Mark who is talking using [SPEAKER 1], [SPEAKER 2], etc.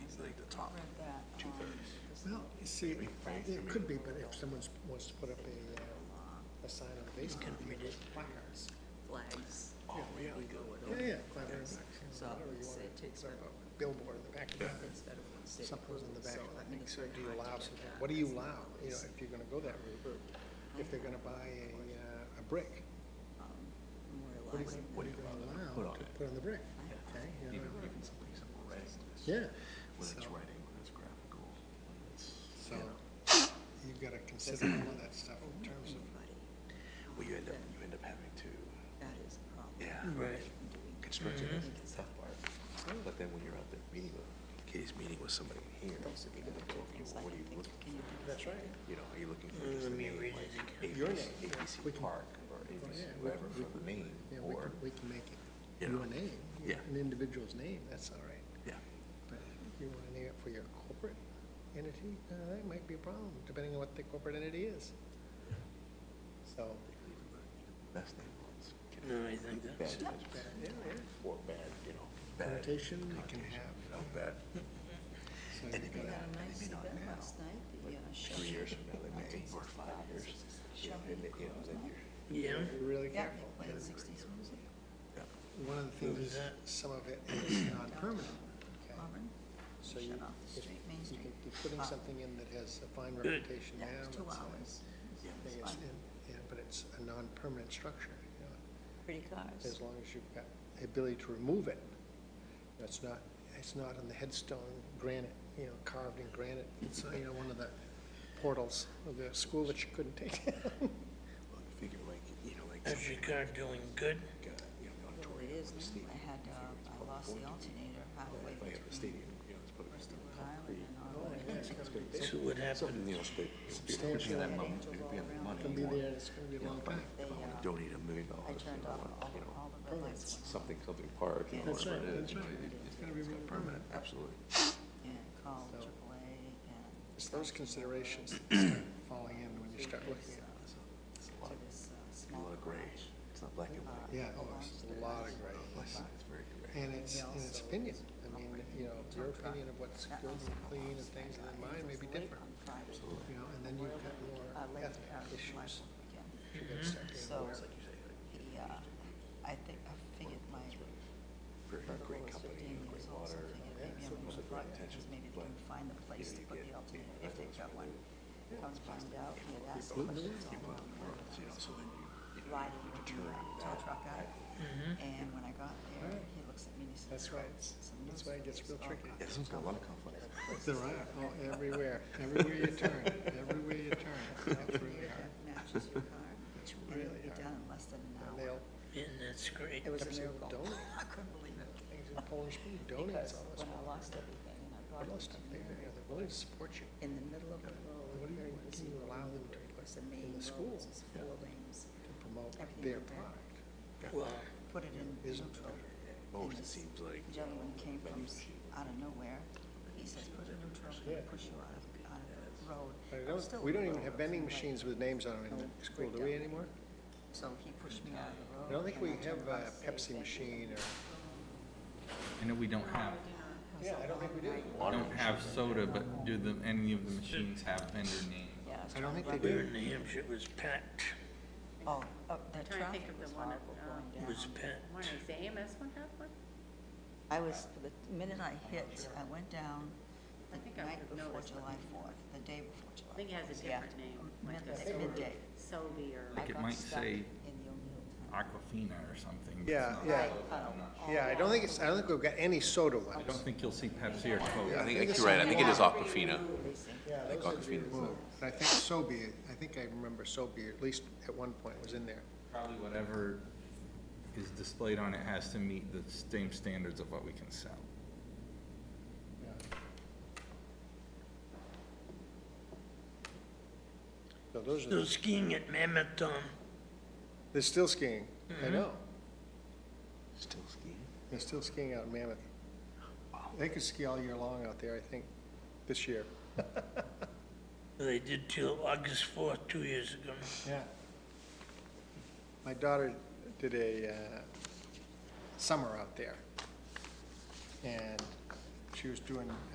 [SPEAKER 1] Well, you see, it could be, but if someone wants to put up a, uh, a sign on the basement, you just placards.
[SPEAKER 2] flags.
[SPEAKER 1] Oh, yeah.
[SPEAKER 2] We go with
[SPEAKER 1] Yeah,
[SPEAKER 2] all
[SPEAKER 1] yeah, five hundred bucks.
[SPEAKER 2] So
[SPEAKER 1] Whatever you
[SPEAKER 2] it's-
[SPEAKER 1] want.
[SPEAKER 2] it takes
[SPEAKER 1] Put up
[SPEAKER 2] about-
[SPEAKER 1] a Billboard in the back of the office,
[SPEAKER 2] instead of city
[SPEAKER 1] something in
[SPEAKER 2] approval,
[SPEAKER 1] the back
[SPEAKER 2] so
[SPEAKER 1] of
[SPEAKER 2] I think
[SPEAKER 1] the thing,
[SPEAKER 2] it's
[SPEAKER 1] so
[SPEAKER 2] very
[SPEAKER 1] do you
[SPEAKER 2] hard to
[SPEAKER 1] allow,
[SPEAKER 2] get
[SPEAKER 1] some-
[SPEAKER 2] that.
[SPEAKER 1] what do you allow, you know, if you're gonna go that route? If they're gonna buy a, uh, a brick, what do you,
[SPEAKER 2] um, Memorializing
[SPEAKER 1] what are you gonna allow to put on the brick? Okay, you know,
[SPEAKER 3] Even some piece of writing, that's-
[SPEAKER 1] yeah,
[SPEAKER 3] whether it's
[SPEAKER 1] So-
[SPEAKER 3] writing, whether it's graphical, whether it's.
[SPEAKER 1] so you've gotta consider all of that stuff in terms of
[SPEAKER 2] anybody,
[SPEAKER 3] Well, you end up, you end up having to,
[SPEAKER 2] that is a problem.
[SPEAKER 3] yeah.
[SPEAKER 4] Right.
[SPEAKER 3] Construction
[SPEAKER 2] Mhm.
[SPEAKER 3] is the tough part, but then when you're out there meeting with, Katie's meeting with somebody here,
[SPEAKER 2] Those are the other two
[SPEAKER 3] well,
[SPEAKER 2] things I
[SPEAKER 3] what are
[SPEAKER 2] can
[SPEAKER 3] you
[SPEAKER 2] think
[SPEAKER 3] looking
[SPEAKER 2] of. Can you do
[SPEAKER 1] That's right.
[SPEAKER 3] you know, are you looking for just the name, like
[SPEAKER 1] Your
[SPEAKER 3] ABC,
[SPEAKER 1] name, yeah. We
[SPEAKER 3] ABC
[SPEAKER 1] can- Oh,
[SPEAKER 3] Park or
[SPEAKER 1] yeah,
[SPEAKER 3] ABC,
[SPEAKER 1] we
[SPEAKER 3] whatever,
[SPEAKER 1] can-
[SPEAKER 3] for the name,
[SPEAKER 1] Yeah, we can,
[SPEAKER 3] or,
[SPEAKER 1] we can make it
[SPEAKER 3] you
[SPEAKER 1] your
[SPEAKER 3] know,
[SPEAKER 1] name,
[SPEAKER 3] yeah.
[SPEAKER 1] an individual's name, that's all right.
[SPEAKER 3] yeah.
[SPEAKER 1] But if you want to name it for your corporate entity, uh, that might be a problem, depending on what the corporate entity is. So,
[SPEAKER 3] even the Best name ones. can
[SPEAKER 4] No, I think
[SPEAKER 3] have
[SPEAKER 4] that's-
[SPEAKER 3] bad
[SPEAKER 1] bad, yeah, yeah.
[SPEAKER 3] Or bad, you know, bad.
[SPEAKER 1] Connotation it can
[SPEAKER 3] connotation,
[SPEAKER 1] have.
[SPEAKER 3] You know, bad,
[SPEAKER 2] We got a
[SPEAKER 1] So you gotta-
[SPEAKER 3] And if you Yeah,
[SPEAKER 2] nice
[SPEAKER 3] maybe not
[SPEAKER 2] event
[SPEAKER 3] now,
[SPEAKER 2] last night, the uh,
[SPEAKER 3] three
[SPEAKER 2] Chevy.
[SPEAKER 3] years from now, they may, or five years, you know, and, it- you know, then you're.
[SPEAKER 4] Yeah.
[SPEAKER 1] be really
[SPEAKER 2] Yeah,
[SPEAKER 1] careful.
[SPEAKER 2] they played sixties music,
[SPEAKER 1] One of the things is that some of it is non-permanent, okay?
[SPEAKER 2] Auburn,
[SPEAKER 1] So you,
[SPEAKER 2] shut off the
[SPEAKER 1] if
[SPEAKER 2] street, Main
[SPEAKER 1] you
[SPEAKER 2] Street.
[SPEAKER 1] can- you're putting
[SPEAKER 2] Wow.
[SPEAKER 1] something in that has a fine reputation now.
[SPEAKER 2] Yeah, it was two
[SPEAKER 1] that's, uh,
[SPEAKER 2] hours.
[SPEAKER 1] yeah,
[SPEAKER 2] It's
[SPEAKER 1] it's-
[SPEAKER 2] fine.
[SPEAKER 1] and- and- But it's a non-permanent structure, you know?
[SPEAKER 2] Pretty
[SPEAKER 1] as
[SPEAKER 2] cars.
[SPEAKER 1] long as you've got the ability to remove it. It's not, it's not on the headstone granite, you know, carved in granite. It's, you know, one of the portals of the school that you couldn't take down.
[SPEAKER 3] Well, you figure like, you know, like.
[SPEAKER 4] Is your car doing good?
[SPEAKER 3] like, uh, you know, the
[SPEAKER 2] Well,
[SPEAKER 3] auditorium
[SPEAKER 2] it is
[SPEAKER 3] or the
[SPEAKER 2] now.
[SPEAKER 3] stadium,
[SPEAKER 2] I had,
[SPEAKER 3] you figure it's
[SPEAKER 2] uh, I
[SPEAKER 3] probably
[SPEAKER 2] lost the
[SPEAKER 3] going to be-
[SPEAKER 2] alternator halfway
[SPEAKER 3] If I have a
[SPEAKER 2] between
[SPEAKER 3] stadium, you know, it's probably.
[SPEAKER 2] Bristol,
[SPEAKER 3] gonna
[SPEAKER 2] Rhode Island
[SPEAKER 3] be concrete.
[SPEAKER 2] and all the way.
[SPEAKER 1] Yeah, it's gonna be big.
[SPEAKER 4] So what happened?
[SPEAKER 3] Something, you know, it's big.
[SPEAKER 1] Substantial.
[SPEAKER 3] If you have money,
[SPEAKER 2] Angels all
[SPEAKER 3] if you have
[SPEAKER 2] around.
[SPEAKER 1] It's
[SPEAKER 3] money,
[SPEAKER 1] gonna be there,
[SPEAKER 3] you want-
[SPEAKER 1] and it's gonna be a
[SPEAKER 3] you know,
[SPEAKER 1] long
[SPEAKER 3] if I-
[SPEAKER 1] time.
[SPEAKER 2] They,
[SPEAKER 3] If I wanna
[SPEAKER 2] uh,
[SPEAKER 3] donate a million
[SPEAKER 2] I
[SPEAKER 3] dollars, you
[SPEAKER 2] turned
[SPEAKER 3] know, I
[SPEAKER 2] off all,
[SPEAKER 3] want, you know,
[SPEAKER 2] all the red lights. went
[SPEAKER 3] something, something park, you know,
[SPEAKER 1] That's right,
[SPEAKER 3] whatever it
[SPEAKER 1] that's
[SPEAKER 3] is, you know,
[SPEAKER 1] right.
[SPEAKER 3] it-
[SPEAKER 1] It's
[SPEAKER 3] it's
[SPEAKER 1] gotta be
[SPEAKER 3] gonna be
[SPEAKER 1] real
[SPEAKER 3] permanent, absolutely.
[SPEAKER 2] on And called
[SPEAKER 1] So-
[SPEAKER 2] AAA and
[SPEAKER 1] It's those considerations that start falling in when you start looking at
[SPEAKER 3] It's a- it's a
[SPEAKER 2] uh, to
[SPEAKER 3] lot,
[SPEAKER 2] this uh,
[SPEAKER 3] a
[SPEAKER 2] small Uh,
[SPEAKER 3] lot of gray,
[SPEAKER 2] garage.
[SPEAKER 3] it's not black and white,
[SPEAKER 1] it. Yeah, oh, it's a lot of gray.
[SPEAKER 3] it's it's very gray.
[SPEAKER 1] And it's, and it's opinion. I mean, you know, your opinion of what's
[SPEAKER 2] That
[SPEAKER 1] good and
[SPEAKER 2] was-
[SPEAKER 1] clean and things, and then mine may be
[SPEAKER 2] It was late
[SPEAKER 1] different,
[SPEAKER 2] on Friday.
[SPEAKER 1] you know, and then you've got
[SPEAKER 2] Uh,
[SPEAKER 1] more
[SPEAKER 2] late,
[SPEAKER 1] ethnic
[SPEAKER 2] uh, last
[SPEAKER 1] issues.
[SPEAKER 2] weekend.
[SPEAKER 1] You gotta start being
[SPEAKER 2] So,
[SPEAKER 1] aware.
[SPEAKER 2] he, uh, I think, I figured my
[SPEAKER 3] Very
[SPEAKER 2] burglar
[SPEAKER 3] great
[SPEAKER 2] was
[SPEAKER 3] company,
[SPEAKER 2] fifteen years
[SPEAKER 3] great
[SPEAKER 2] old, so I
[SPEAKER 3] water.
[SPEAKER 2] figured maybe I'm
[SPEAKER 3] most
[SPEAKER 2] gonna
[SPEAKER 3] of the
[SPEAKER 2] run, because
[SPEAKER 3] attention,
[SPEAKER 2] maybe they
[SPEAKER 3] but,
[SPEAKER 2] can find a place
[SPEAKER 3] know,
[SPEAKER 2] to
[SPEAKER 3] you
[SPEAKER 2] put
[SPEAKER 3] get-
[SPEAKER 2] the
[SPEAKER 3] you
[SPEAKER 2] alternator,
[SPEAKER 3] know,
[SPEAKER 2] if they've got
[SPEAKER 3] that's what
[SPEAKER 2] one.
[SPEAKER 3] they
[SPEAKER 2] Comes find out, he had asked
[SPEAKER 1] Gluten
[SPEAKER 2] questions
[SPEAKER 1] alone?
[SPEAKER 2] all
[SPEAKER 3] You put
[SPEAKER 2] along the
[SPEAKER 3] the
[SPEAKER 2] way,
[SPEAKER 3] products, you know, so then you, you know,
[SPEAKER 2] riding
[SPEAKER 3] you
[SPEAKER 2] with the
[SPEAKER 3] determine
[SPEAKER 2] uh, tow
[SPEAKER 3] that.
[SPEAKER 2] truck guy. And when I got there,
[SPEAKER 1] Right.
[SPEAKER 2] he looks at me and he says,
[SPEAKER 1] That's why
[SPEAKER 2] "Oh,
[SPEAKER 1] it's-
[SPEAKER 2] some
[SPEAKER 1] that's
[SPEAKER 2] news
[SPEAKER 1] why it gets
[SPEAKER 2] stories
[SPEAKER 1] real
[SPEAKER 2] all
[SPEAKER 1] tricky.
[SPEAKER 2] about
[SPEAKER 3] Yeah, this one's got a lot of conflict.
[SPEAKER 1] There are, oh, everywhere, everywhere you turn, everywhere you turn, that's really
[SPEAKER 2] that
[SPEAKER 1] hard.
[SPEAKER 2] matches your car,
[SPEAKER 1] It's
[SPEAKER 2] and
[SPEAKER 1] really
[SPEAKER 2] it'll be
[SPEAKER 1] hard.
[SPEAKER 2] done in less than an
[SPEAKER 1] And
[SPEAKER 2] hour.
[SPEAKER 1] they'll,
[SPEAKER 4] Yeah, that's great.
[SPEAKER 2] It was a
[SPEAKER 1] Pepsi will
[SPEAKER 2] miracle.
[SPEAKER 1] donate.
[SPEAKER 2] I couldn't believe it.
[SPEAKER 1] things in Polish food,
[SPEAKER 2] Because
[SPEAKER 1] donuts, all this.
[SPEAKER 2] when I lost everything and I brought
[SPEAKER 1] All
[SPEAKER 2] it
[SPEAKER 1] this
[SPEAKER 2] to
[SPEAKER 1] stuff, they,
[SPEAKER 2] Mary,
[SPEAKER 1] you know, they're willing to support you.
[SPEAKER 2] in the middle of the
[SPEAKER 1] What
[SPEAKER 2] road,
[SPEAKER 1] do you-
[SPEAKER 2] very
[SPEAKER 1] what
[SPEAKER 2] busy
[SPEAKER 1] can you allow
[SPEAKER 2] road,
[SPEAKER 1] them to
[SPEAKER 2] of course,
[SPEAKER 1] put
[SPEAKER 2] the
[SPEAKER 1] in the
[SPEAKER 2] main
[SPEAKER 1] school?
[SPEAKER 2] road is four lanes.
[SPEAKER 1] to promote
[SPEAKER 2] Everything
[SPEAKER 1] their
[SPEAKER 2] in there.
[SPEAKER 1] product.
[SPEAKER 4] Well,
[SPEAKER 2] Put it in
[SPEAKER 1] Isn't
[SPEAKER 2] neutral.
[SPEAKER 3] Most,
[SPEAKER 2] And
[SPEAKER 3] it
[SPEAKER 2] this
[SPEAKER 3] seems like, uh, you know,
[SPEAKER 2] Gentleman came from
[SPEAKER 3] venues, you
[SPEAKER 2] out of nowhere. He says, put it in neutral, I'm gonna
[SPEAKER 1] Yeah.
[SPEAKER 2] push you out of, out of the road.
[SPEAKER 1] But I
[SPEAKER 2] I'm
[SPEAKER 1] don't-
[SPEAKER 2] still
[SPEAKER 1] we don't
[SPEAKER 2] in the
[SPEAKER 1] even have
[SPEAKER 2] road,
[SPEAKER 1] vending
[SPEAKER 2] right.
[SPEAKER 1] machines with names on them in the school, do we anymore?
[SPEAKER 2] So he pushed me out of the road.
[SPEAKER 1] I don't think
[SPEAKER 2] and
[SPEAKER 1] we
[SPEAKER 2] turned
[SPEAKER 1] have
[SPEAKER 2] around
[SPEAKER 1] a
[SPEAKER 2] and said,
[SPEAKER 1] Pepsi
[SPEAKER 2] "Thank you."
[SPEAKER 1] machine or.
[SPEAKER 5] I know we don't have
[SPEAKER 2] It was
[SPEAKER 1] Yeah,
[SPEAKER 2] a
[SPEAKER 1] I don't think we
[SPEAKER 2] long
[SPEAKER 1] do.
[SPEAKER 2] night.
[SPEAKER 5] we don't have soda, but do the any of the machines have vendor
[SPEAKER 2] Yeah,
[SPEAKER 5] names?
[SPEAKER 2] I was
[SPEAKER 1] I don't
[SPEAKER 2] trying
[SPEAKER 1] think
[SPEAKER 2] to
[SPEAKER 1] they
[SPEAKER 4] we
[SPEAKER 1] do.
[SPEAKER 4] were in New Hampshire, it was packed.
[SPEAKER 2] run- Oh, oh, the
[SPEAKER 6] I'm trying to think
[SPEAKER 2] traffic
[SPEAKER 6] of
[SPEAKER 2] was
[SPEAKER 6] the one at,
[SPEAKER 2] horrible
[SPEAKER 6] um,
[SPEAKER 2] going down.
[SPEAKER 4] It was packed.
[SPEAKER 6] One is AMS one have one?
[SPEAKER 2] I was, the minute I hit, I went down the
[SPEAKER 6] I think I
[SPEAKER 2] night
[SPEAKER 6] would've
[SPEAKER 2] before
[SPEAKER 6] noticed
[SPEAKER 2] July fourth, the day before July.
[SPEAKER 6] I think it has a
[SPEAKER 2] 4th, yeah.
[SPEAKER 6] different name,
[SPEAKER 2] Mm,
[SPEAKER 6] like a
[SPEAKER 2] midday-
[SPEAKER 6] soda-
[SPEAKER 2] Midday.
[SPEAKER 6] Sobe or.
[SPEAKER 5] Like
[SPEAKER 2] I
[SPEAKER 5] it
[SPEAKER 2] got
[SPEAKER 5] might
[SPEAKER 2] stuck
[SPEAKER 5] say
[SPEAKER 2] in the O'Neill tunnel.
[SPEAKER 5] Aquafina or something. but it's
[SPEAKER 1] Yeah,
[SPEAKER 5] not
[SPEAKER 1] yeah.
[SPEAKER 5] soda, I'm not sure.
[SPEAKER 1] Yeah, I don't think it's, I don't think we've got any soda
[SPEAKER 5] I don't
[SPEAKER 1] ones.
[SPEAKER 5] think you'll see Pepsi or Coke.
[SPEAKER 1] Yeah,
[SPEAKER 3] I
[SPEAKER 1] I think
[SPEAKER 3] think, I think
[SPEAKER 1] it's
[SPEAKER 3] you're right, I think it is
[SPEAKER 2] something-
[SPEAKER 3] Aquafina.
[SPEAKER 1] Yeah,
[SPEAKER 3] think
[SPEAKER 1] those are
[SPEAKER 3] Aquafina is
[SPEAKER 1] the- But I think Sobey, I think I remember Sobey, at least at one point was in there.
[SPEAKER 5] Probably whatever is displayed on it has to meet the same standards of what we can sell.
[SPEAKER 1] So those are,
[SPEAKER 4] Still
[SPEAKER 1] the-
[SPEAKER 4] skiing at Mammoth Tom.
[SPEAKER 1] they're still skiing, I know.
[SPEAKER 3] Still skiing?
[SPEAKER 1] They're still skiing out in Mammoth. They could ski all year long out there, I think, this year.
[SPEAKER 4] They did till August fourth, two years ago.
[SPEAKER 1] Yeah. My daughter did a uh, summer out there, and she was doing